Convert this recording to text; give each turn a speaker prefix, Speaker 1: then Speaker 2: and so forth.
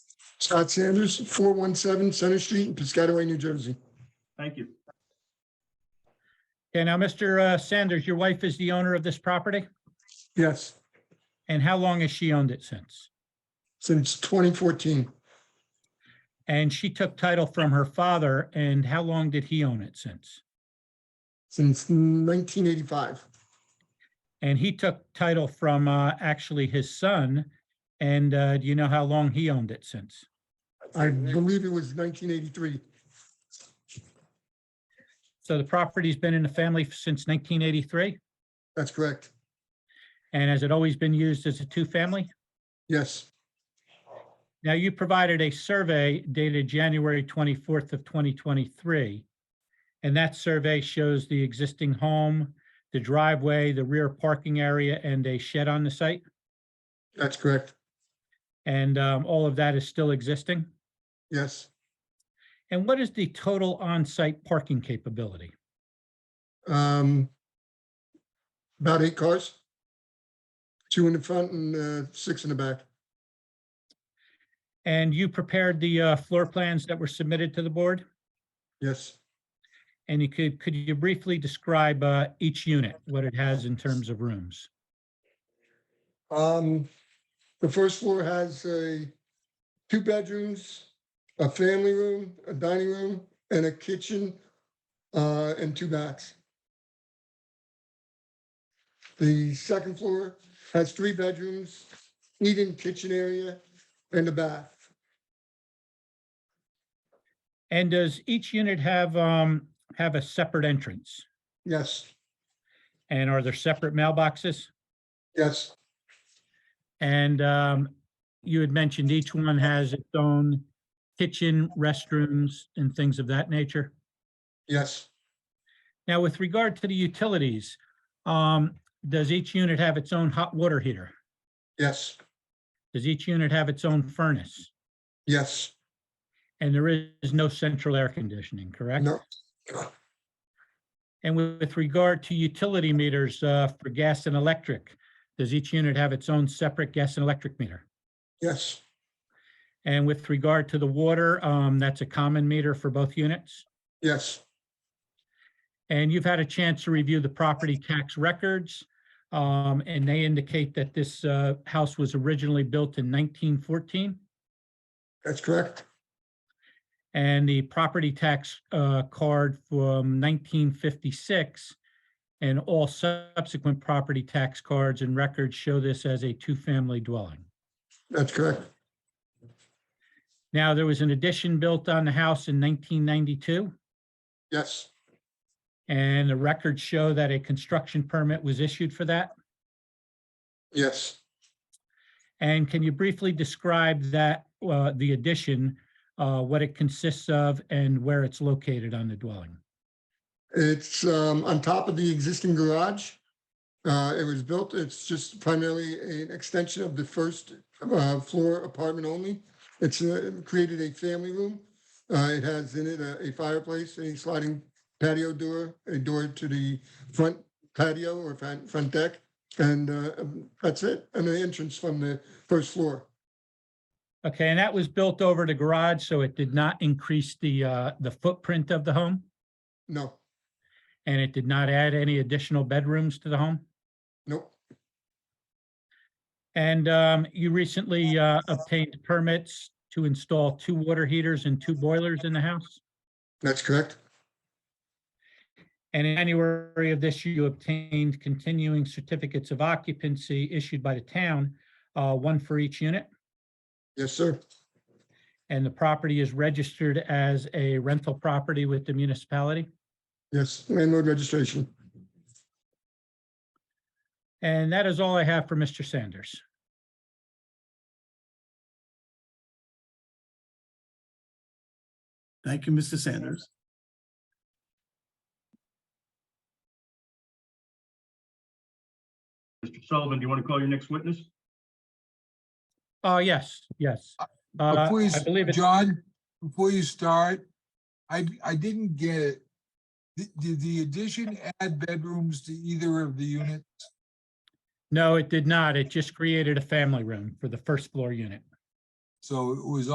Speaker 1: Scott Sanders, 417 Center Street in Piscataway, New Jersey.
Speaker 2: Thank you.
Speaker 3: Okay, now, Mr. uh, Sanders, your wife is the owner of this property,
Speaker 1: Yes,
Speaker 3: and how long has she owned it since?
Speaker 1: since 2014.
Speaker 3: And she took title from her father, and how long did he own it since?
Speaker 1: since 1985.
Speaker 3: And he took title from uh, actually his son, and uh, do you know how long he owned it since?
Speaker 1: I believe it was 1983.
Speaker 3: So the property's been in the family since 1983,
Speaker 1: That's correct.
Speaker 3: and has it always been used as a two-family?
Speaker 1: Yes,
Speaker 3: Now, you provided a survey dated January 24th of 2023. And that survey shows the existing home, the driveway, the rear parking area, and a shed on the site.
Speaker 1: that's correct.
Speaker 3: And um, all of that is still existing.
Speaker 1: Yes.
Speaker 3: And what is the total on-site parking capability?
Speaker 1: Um, About eight cars. Two in the front and uh, six in the back.
Speaker 3: And you prepared the uh, floor plans that were submitted to the board?
Speaker 1: Yes.
Speaker 3: And you could, could you briefly describe uh, each unit, what it has in terms of rooms?
Speaker 1: Um, The first floor has a, two bedrooms, a family room, a dining room, and a kitchen, uh, and two baths. The second floor has three bedrooms, eating kitchen area, and a bath.
Speaker 3: And does each unit have, um, have a separate entrance?
Speaker 1: Yes,
Speaker 3: And are there separate mailboxes?
Speaker 1: yes,
Speaker 3: And um, you had mentioned each one has its own kitchen, restrooms, and things of that nature.
Speaker 1: yes,
Speaker 3: Now, with regard to the utilities, um, does each unit have its own hot water heater?
Speaker 1: yes,
Speaker 3: Does each unit have its own furnace?
Speaker 1: yes,
Speaker 3: And there is no central air conditioning, correct?
Speaker 1: no,
Speaker 3: And with with regard to utility meters uh, for gas and electric, does each unit have its own separate gas and electric meter?
Speaker 1: yes,
Speaker 3: And with regard to the water, um, that's a common meter for both units?
Speaker 1: yes,
Speaker 3: And you've had a chance to review the property tax records. um, And they indicate that this uh, house was originally built in 1914.
Speaker 1: that's correct.
Speaker 3: And the property tax uh, card from 1956 and all subsequent property tax cards and records show this as a two-family dwelling.
Speaker 1: That's correct.
Speaker 3: Now, there was an addition built on the house in 1992.
Speaker 1: Yes,
Speaker 3: And the records show that a construction permit was issued for that.
Speaker 1: yes,
Speaker 3: And can you briefly describe that, uh, the addition, uh, what it consists of and where it's located on the dwelling?
Speaker 1: it's um, on top of the existing garage. Uh, It was built, it's just primarily an extension of the first uh, floor apartment only. It's uh, created a family room. Uh, It has in it a a fireplace, a sliding patio door, a door to the front patio or front front deck. And uh, um, that's it, and an entrance from the first floor.
Speaker 3: Okay, and that was built over the garage, so it did not increase the, uh, the footprint of the home?
Speaker 1: No,
Speaker 3: And it did not add any additional bedrooms to the home?
Speaker 1: nope,
Speaker 3: And, um, you recently, uh, obtained permits to install two water heaters and two boilers in the house?
Speaker 1: that's correct.
Speaker 3: And in January of this year, you obtained continuing certificates of occupancy issued by the town, uh, one for each unit.
Speaker 1: Yes, sir.
Speaker 3: And the property is registered as a rental property with the municipality.
Speaker 1: Yes, landlord registration.
Speaker 3: And that is all I have for Mr. Sanders.
Speaker 2: Thank you, Mr. Sanders. Mr. Sullivan, do you want to call your next witness?
Speaker 3: Oh, yes, yes. Uh,
Speaker 4: Before you,
Speaker 3: I believe
Speaker 4: s-
Speaker 3: it's,
Speaker 4: John, before you start, I, I didn't get it. Did- Did the addition add bedrooms to either of the units?
Speaker 3: no, it did not. It just created a family room for the first floor unit.
Speaker 4: So it was